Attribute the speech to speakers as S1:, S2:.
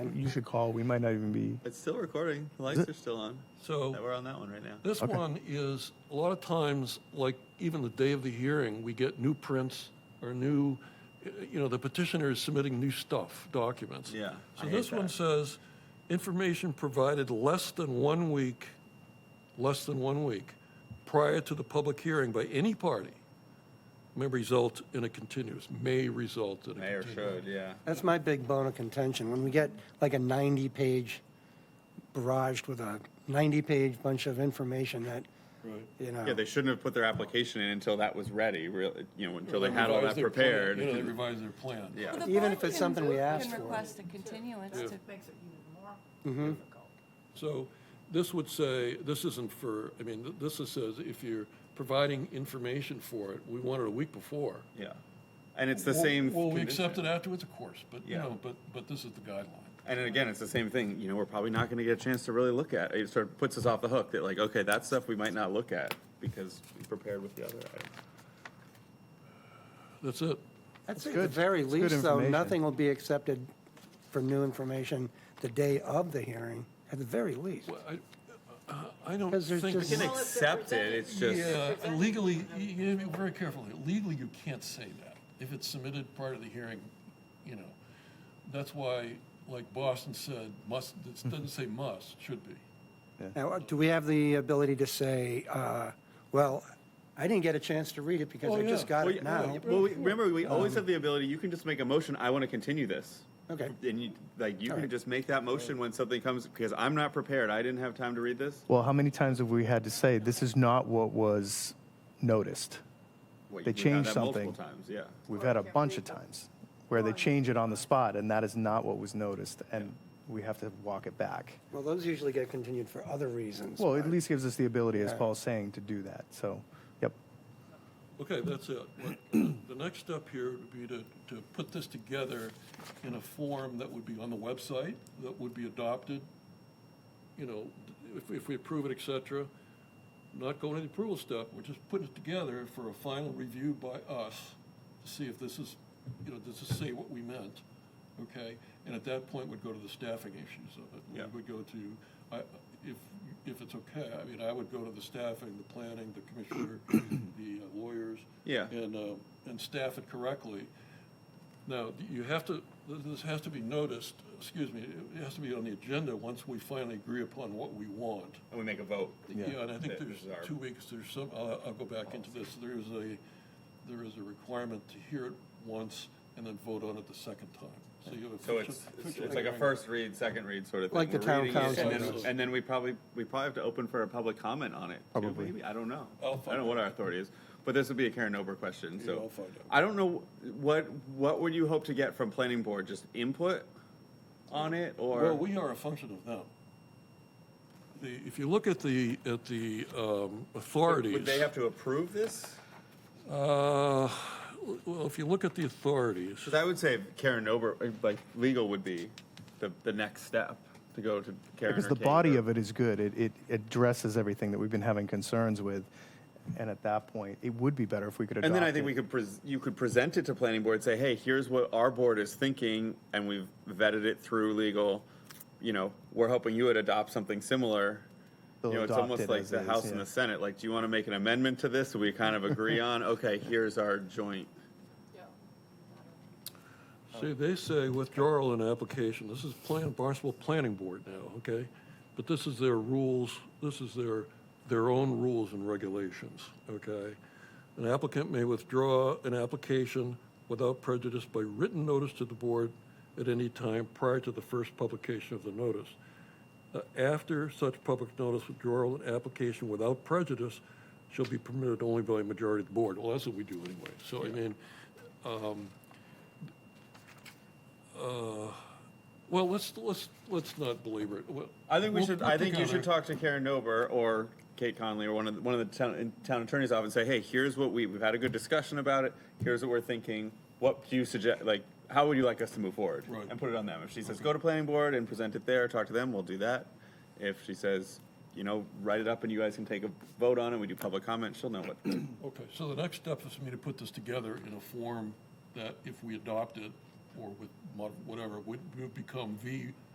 S1: You should call. We might not even be.
S2: It's still recording. The lights are still on.
S3: So-
S2: We're on that one right now.
S3: This one is, a lot of times, like even the day of the hearing, we get new prints or new, eh, you know, the petitioner is submitting new stuff, documents.
S2: Yeah, I
S3: So
S2: hate
S3: this one
S2: that.
S3: says, information provided less than one week, less than one week prior to the public hearing by any party may result in a continuous, may result in a
S2: Mayor
S3: continuous.
S2: showed, yeah.
S4: That's my big bone of contention. When we get like a 90-page barraged with a 90-page bunch of information that, you know.
S2: Yeah, they shouldn't have put their application in until that all that was ready, really, you know, until they had all
S3: Revise
S2: that
S3: their plan,
S2: prepared.
S3: You know, they revise their plan.
S2: Yeah.
S5: The
S4: Even
S5: board
S4: if it's
S5: can
S4: something
S5: do-
S4: we asked for.
S5: Can request a continuance to,
S6: Makes it even more difficult.
S3: So this would say, this isn't for, I mean, th- this is says if you're providing information for it, we want it a week before.
S2: Yeah. And it's the same.
S3: Well, we
S2: condition.
S3: accept it afterwards, of course, but, you
S2: Yeah.
S3: know, but, but this is the guideline.
S2: And then again, it's the same thing, you know, we're probably not gonna get a chance to really look at. It sort of puts us off the hook that like, okay, that stuff we might not look at because we prepared with the other items.
S3: That's it.
S4: That's At the
S1: good.
S4: very
S1: It's good
S4: least, though,
S1: information.
S4: nothing will be accepted for new information the day of the hearing, at the very least.
S3: Well, I, I don't
S4: Because there's
S3: think.
S4: just-
S2: You can
S6: Well, if they're
S2: accept it,
S6: presented-
S2: it's just,
S3: Yeah, legally, you you gotta be very careful. here. Legally, you can't say that. If it's submitted prior to the hearing, you know, that's why, like Boston said, must, it doesn't say must, should be.
S4: Now, uh, do we have the ability to say, uh, well, I didn't get a chance to read it because
S3: Oh,
S4: I just
S3: yeah.
S4: got
S2: Well,
S4: it
S2: yeah,
S4: now?
S2: Well, we- remember, we always have the ability, you can just make a motion, I want to continue this.
S4: Okay.
S2: And you, like, you can
S4: right.
S2: just make that motion when something comes, because I'm not prepared, I didn't have time to read this.
S1: Well, how many times have we had to say this is not what was noticed?
S2: Wait,
S1: They
S2: we've had
S1: changed
S2: that Multiple
S1: something.
S2: times, yeah.
S1: We've had a bunch of times where they change it on the spot, and that is not what was noticed, and we have to walk it back.
S4: Well, those usually get continued for other reasons.
S1: Well,
S4: but-
S1: at least gives us the ability, as Paul's saying, to do that. So, yep.
S3: Okay, that's it. What- The next step here would be to, to put this together in a form that would be on the website, that would be adopted, you know, if, if we approve it, et cetera. Not going to the approval step, we're just putting it together for a final review by us to see if this is, you know, does this say what we meant, okay? And at that point, would go to the staffing issues of it.
S2: Yeah.
S3: We would go to, I, if, if it's okay, I mean, I would go to the staffing, the planning, the commissioner, the uh, lawyers.
S2: Yeah.
S3: And, uh, and staff it correctly. Now, you have to, this has to be noticed, excuse me, it has to be on the agenda once we finally agree upon what we want.
S2: And we make a vote.
S3: Yeah, and I
S2: That
S3: think there's
S2: is our-
S3: two weeks, there's some, I'll, I'll go back into this, there is a, there is a requirement to hear it once and then vote on it the second time. So you have
S2: So
S3: official.
S2: it's, it's like a first read, second read sort of thing.
S4: Like the
S2: We're
S4: town
S2: reading it, and
S4: council
S2: then-
S3: does.
S2: And then we probably, we probably have to open for a public comment on it. too,
S1: Probably.
S2: maybe. I don't know. I
S3: I'll
S2: don't know
S3: find
S2: what our authority is, but this would be a Karen Ober question, so.
S3: I'll find out.
S2: I don't know, what, what would you hope to get from planning board? Just input on it
S3: Well,
S2: or?
S3: we are a function of them. The, if you look at the, at the, um, authorities.
S2: Would they have to approve this?
S3: Uh, well, if you look at the authorities,
S2: Because I would say Karen Ober, like legal would be the, the next step to go to Karen.
S1: Because the body of it is good. It, it addresses everything that we've been having concerns with. And at that point, it would be better if we could adopt
S2: And then I think
S1: it.
S2: we could, pres- you could present it to planning board, say, hey, here's what our board is thinking, and we've vetted it through legal. You know, we're hoping you would adopt something similar. You
S1: They'll
S2: know, it's
S1: adopt
S2: almost
S1: it
S2: like
S1: as
S2: the
S1: is,
S2: House
S1: yeah.
S2: and the Senate, like, do you want to make an amendment to this? We kind of agree on, okay, here's our joint.
S3: see, they say withdrawal in application, this is plan, Barnstable Planning Board now, okay? But this is their rules, this is their, their own rules and regulations, okay? An applicant may withdraw an application without prejudice by written notice to the board at any time prior to the first publication of the notice. Uh, After such public notice withdrawal, an application without prejudice shall be permitted only by a majority of the board. Well, that's what we do anyway. So, I mean, um, uh, well, let's, let's, let's not belabor it. Well,
S2: I think we
S3: we'll-
S2: should,
S3: we'll
S2: I think you
S3: pick on
S2: should
S3: our-
S2: talk to Karen Nober or Kate Conley or one of, the- one of the town, in- town attorneys office and say, hey, here's what we, we've had a good discussion about it. Here's what we're thinking. What do you suggest, like, how would you like us to move forward?
S3: Right.
S2: And put it on them. If she says, go to planning board and present it there, talk to them, we'll do that. If she says, you know, write it up and you guys can take a vote on it, we do public comment, she'll know what.
S3: Okay, so the next step is for me to put this together in a form that if we adopt it or with mod- whatever, would would become the